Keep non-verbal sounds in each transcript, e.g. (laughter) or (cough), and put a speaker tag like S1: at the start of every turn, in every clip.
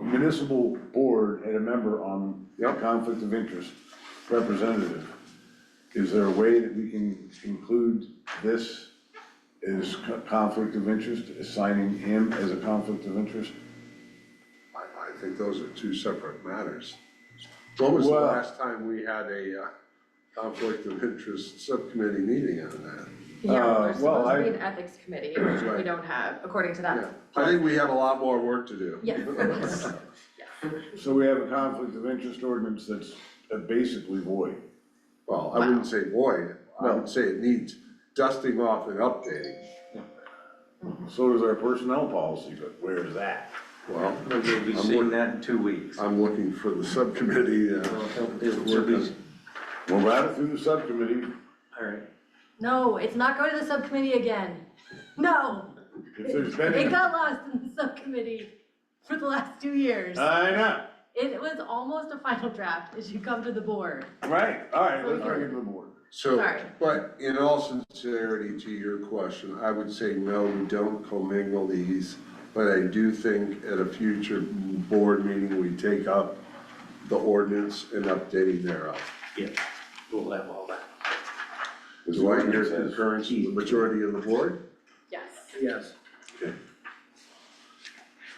S1: municipal board had a member on
S2: Yep.
S1: conflict of interest representative. Is there a way that we can include this as co- conflict of interest, assigning him as a conflict of interest?
S2: I, I think those are two separate matters. When was the
S1: Well-
S2: last time we had a uh, conflict of interest subcommittee meeting on that?
S1: Uh,
S3: Yeah, there's
S1: well,
S3: supposed to be
S1: I-
S3: an ethics committee, which we
S2: Right.
S3: don't have, according to
S2: Yeah,
S3: that.
S2: I think we have a lot more work to do.
S3: Yes.
S1: So we have a conflict of interest ordinance that's uh, basically void.
S2: Well, I wouldn't say void, I would say it needs dusting off and updating.
S1: So does our personnel policy, but where is that?
S2: Well,
S4: We'll be
S2: I'm
S4: seeing
S2: look-
S4: that in two weeks.
S2: I'm looking for the subcommittee, uh,
S4: It'll be,
S1: We'll route it through the subcommittee.
S4: all right.
S5: No, it's not going to the subcommittee again. No,
S1: If there's
S5: it
S1: been,
S5: got lost in the subcommittee for the last two years.
S2: Uh.
S1: I know,
S5: It was almost a final draft, it should come to the board.
S1: right, all right, let's bring it to the board.
S2: so,
S3: Sorry.
S2: but in all sincerity to your question, I would say, no, we don't commingle these. But I do think at a future board meeting, we take up the ordinance and updating thereof.
S4: Yeah, we'll have all that.
S2: Do I hear concurrence from the majority of the board?
S3: Yes.
S4: Yes.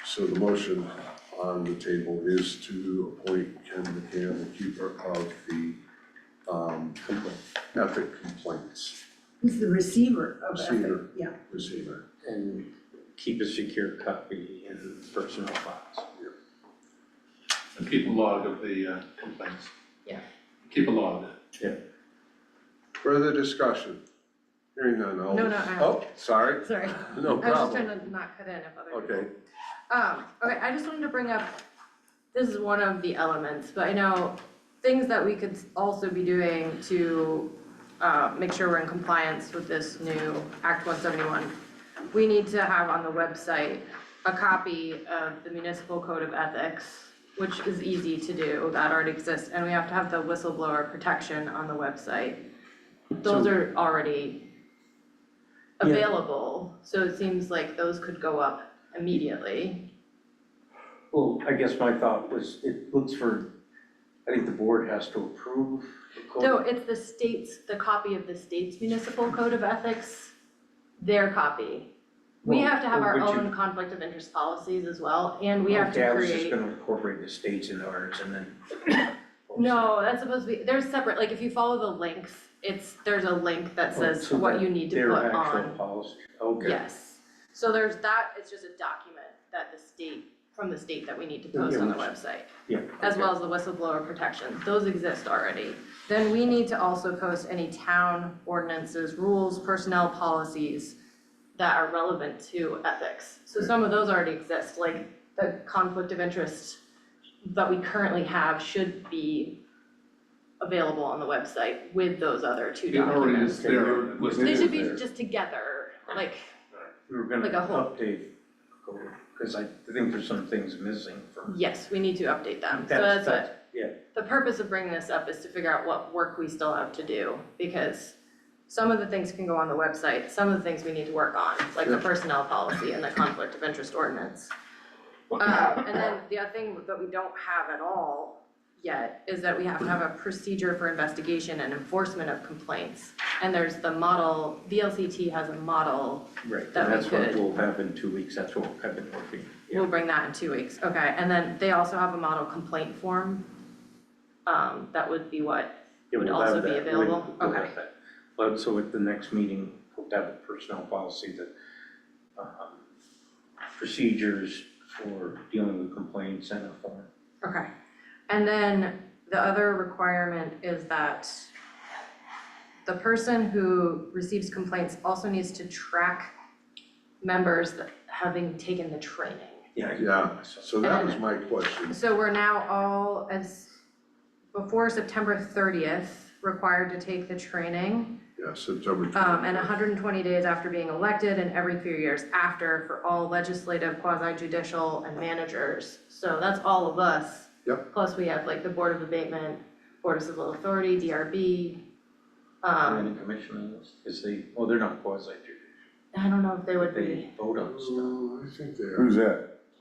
S2: So the motion on the table is to appoint Ken McCann, the keeper of the, um, ethic complaints
S6: He's the receiver of ethic,
S2: Receiver.
S6: yeah.
S2: receiver.
S4: And keep a secure copy in personal files.
S7: and keep a log of the uh, complaints.
S3: Yeah.
S7: Keep a log.
S2: Further discussion? Hearing none, all.
S3: No, no, I-
S2: Oh, sorry,
S3: Sorry,
S2: no
S3: I was just trying
S2: problem.
S3: to not cut in if other people.
S2: Okay,
S3: Um, okay, I just wanted to bring up, this is one of the elements, but I know things that we could also be doing to uh, make sure we're in compliance with this new Act one seventy-one. We need to have on the website a copy of the municipal code of ethics, which is easy to do, that already exists, and we have to have the whistleblower protection on the website. Those
S4: So-
S3: are already
S4: Yeah.
S3: available, so it seems like those could go up immediately.
S4: Well, I guess my thought was, it looks for, I think the board has to approve the code.
S3: No, it's the state's, the copy of the state's municipal code of ethics, their copy. We
S4: Well,
S3: have to have
S4: well,
S3: our
S4: but you-
S3: own conflict of interest policies as well, and we have to
S4: Okay,
S3: create.
S4: I was just gonna incorporate the states in ours and then.
S3: (coughs) No, that's supposed to be, they're separate, like if you follow the links, it's, there's a link that
S4: Oh,
S3: says
S4: so
S3: what
S4: that
S3: you need to
S4: Their
S3: put on.
S4: actual policy, okay.
S3: Yes, so there's that, it's just a document that the state, from the state that we need to post
S4: Yeah,
S3: on the
S4: which-
S3: website.
S4: Yeah,
S3: as
S4: okay.
S3: well as the whistleblower protection, those exist already. Then we need to also post any town ordinances, rules, personnel policies that are relevant to ethics. So some of those already exist, like the conflict of interest that we currently have should be available on the website with those other two
S7: It already
S3: documents.
S7: is there, listed
S3: They
S7: as
S3: should be
S7: there.
S3: just together, like,
S4: We were gonna
S3: Like a whole-
S4: update, because I think there's some things missing from.
S3: yes, we need to update them. So
S4: That's-
S3: that's what
S4: that's- Yeah,
S3: the purpose of bringing this up is to figure out what work we still have to do, because some of the things can go on the website, some of the things we need to work on, like the personnel policy and the conflict of interest ordinance. Uh, and then the other thing that we don't have at all yet is that we have to have a procedure for investigation and enforcement of complaints. And there's the model, VLCT has a model,
S4: right, and
S3: That we
S4: that's what
S3: could-
S4: we'll have in two weeks, that's what I've been working. yeah.
S3: we'll bring that in two weeks, okay, and then they also have a model complaint form. Um, that would be what
S4: Yeah,
S3: would
S4: we'll
S3: also
S4: have
S3: be
S4: that. We-
S3: available?
S4: we'll have
S3: Okay.
S4: that. But so at the next meeting, we'll have a personnel policy that, um, procedures for dealing with complaints and a form.
S3: Okay, and then the other requirement is that the person who receives complaints also needs to track members that having taken the training.
S4: Yeah. I can-
S2: yeah, so that was my question.
S3: So we're now all as, before September thirtieth, required to take the training.
S2: Yeah, September
S3: Um, and
S2: 21st.
S3: hundred and twenty days after being elected and every three years after for all legislative, quasi judicial and managers. So that's all of us.
S2: Yep.
S3: Plus we have like the Board of Abatement, Board of Civil Authority, DRB. Um,
S4: Any commissioners, is they, well, they're not quasi
S3: I don't know if they would
S4: they
S3: be,
S4: vote on stuff.
S2: Oh, I think they are.
S1: Who's that?